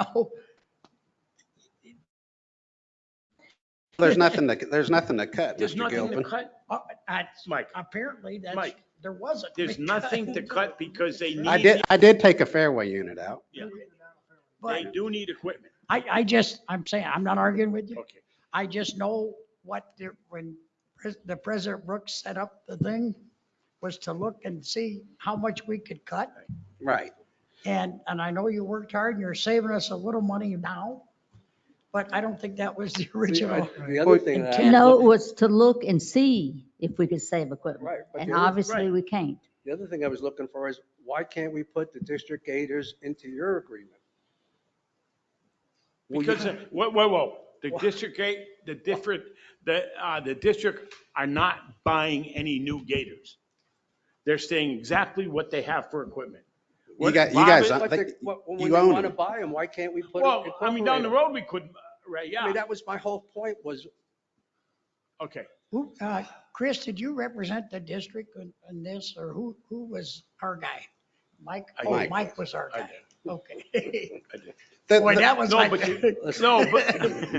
No, There's nothing to, there's nothing to cut, There's Mr. nothing to Gilpin. cut, uh, that's, Mike. apparently that's, Mike, there wasn't. There's nothing to cut because they I need, did, I did take a fairway unit out. they But do need equipment. I, I just, I'm saying, I'm not arguing with you. Okay. I just know what, the- when pres- the President Brooks set up the thing was to look and see how much we could cut. Right. And, and I know you worked hard and you're saving us a little money now, but I don't think that was the original. The other thing that, I- No, it was to look and see if we could save equipment. right, but And the other, obviously, right. we can't. the other thing I was looking for is, why can't we put the district gators into your agreement? Well, you- Because, uh, whoa, whoa, whoa, the district gate, the different, the, uh, the district are not buying any new gators. They're staying exactly what they have for equipment. You got, you Bob, guys, it- But they- like, but When you they own want to them. buy them, why can't we put? Well, it- I mean, down the road, we could, uh, right, I mean, yeah, that was my whole point was, okay. Who, uh, Chris, did you represent the district in, in this, or who, who was our guy? Mike? I Oh, did. Mike was our I guy. Okay. the- Boy, the- that was No, like. but you- No, but,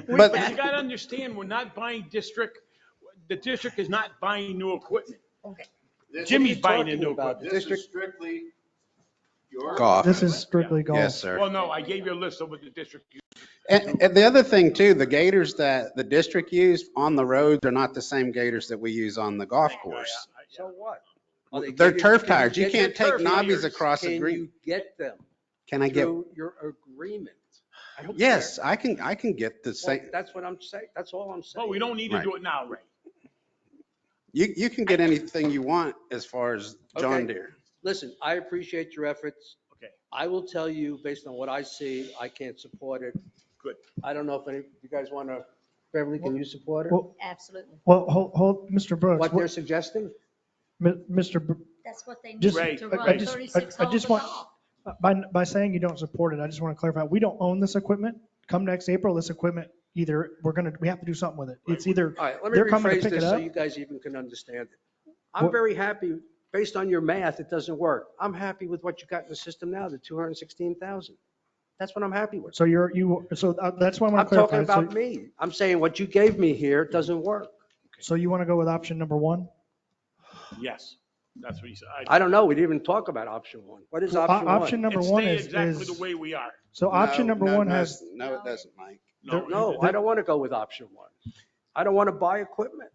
But- but you gotta understand, we're not buying district, the district is not buying new equipment. Okay. This is- Jimmy's buying a talking new about? equipment. This district- is strictly your. Golf. This is strictly golf. Yes, sir. Well, no, I gave you a list of what the district, And, and the other thing too, the gators that the district used on the roads are not the same gators that we use on the golf course. so what? Are they They're gators- turf can you tires. You get can't their take turf knobbies gators? across a Can green. you get them Can I get, through your agreement? I hope yes, they're- I can, I can get the Well, same, That's what I'm saying, that's all I'm saying. but Oh, we don't need to do it now, Ray. you, you can get anything you want as far as John Okay. Deere. Listen, I appreciate your efforts. Okay. I will tell you, based on what I see, I can't support it. Good. I don't know if any, you guys want to, Beverly, can you support it? Well- Absolutely. Well, hold, hold, Mr. Brooks, What they're what- suggesting? Mi- Mr., Br- That's what they Just- Right, needed to I- I run just- I- 36 I holes just of want- uh, golf. by, by saying you don't support it, I just want to clarify, we don't own this equipment. Come next April, this equipment, either, we're going to, we have to do something with it. It's either, All right, let me They're coming to rephrase pick this it so up? you guys even can understand it. I'm What- very happy, based on your math, it doesn't work. I'm happy with what you got in the system now, the 216,000. That's what I'm happy with. so you're, you, so uh, that's why I I'm want to talking clarify. So- about me. I'm saying what you gave me here doesn't work. So you want to go with option number one? Yes, that's what he said. I- I don't know, we didn't even talk about option one. What is O- option Option one? number It's one stay is, exactly is, the way we are. so option No, number no, one no, has, No, it doesn't, Mike. No, No, I don't want to go with option one. I don't want to buy equipment.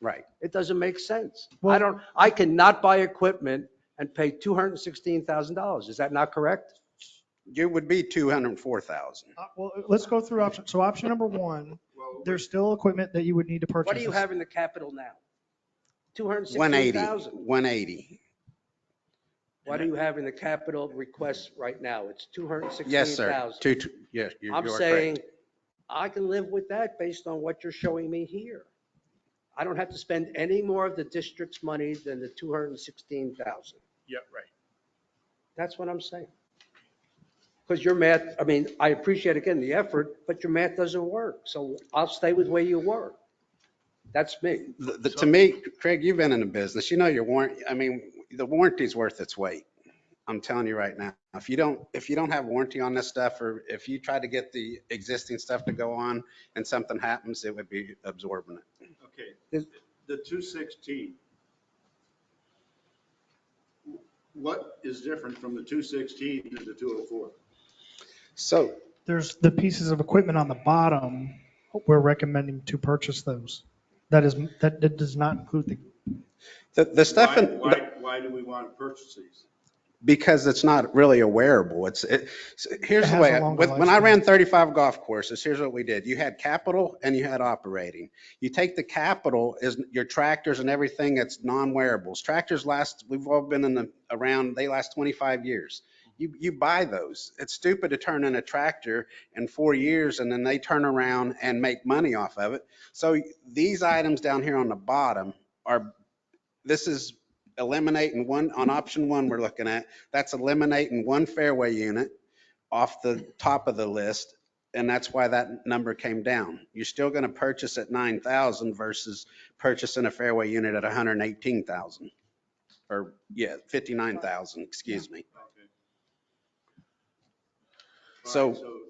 Right. It doesn't make sense. I Well- don't, I cannot buy equipment and pay $216,000. Is that not correct? You would be 204,000. uh, well, let's go through option, so option number one, Well, there's still equipment that you would need to purchase. What do you have in the capital now? 180, 216,000. 180. What do you have in the capital request right now? It's Yes, sir. 216,000. Two, two- yes, you I'm you are saying correct. I can live with that based on what you're showing me here. I don't have to spend any more of the district's money than the 216,000. Yeah, right. That's what I'm saying. Because your math, I mean, I appreciate again the effort, but your math doesn't work. So I'll stay with where you were. That's me. The- the- To me, Craig, you've been in the business. You know your warrant, I mean, the warranty's worth its weight. I'm telling you right now. If you don't, if you don't have warranty on this stuff, or if you try to get the existing stuff to go on and something happens, it would be absorbent. okay, the two sixteen. What is different from the two sixteen to the two oh four? So There's the pieces of equipment on the bottom, we're recommending to purchase those. That is, that, that does not include the, the, the stuff in. Why, why- why do we want to purchase these? because it's not really a wearable. It's, it, so here's It the has way, a longer with- when I lifespan. ran 35 golf courses, here's what we did. You had capital and you had operating. You take the capital is your tractors and everything that's non-wearables. Tractors last, we've all been in the, around, they last 25 years. You, you buy those. It's stupid to turn in a tractor in four years and then they turn around and make money off of it. So these items down here on the bottom are, this is eliminating one, on option one we're looking at, that's eliminating one fairway unit off the top of the list, and that's why that number came down. You're still going to purchase at 9,000 versus purchasing a fairway unit at 118,000. Or, yeah, 59,000, excuse me. So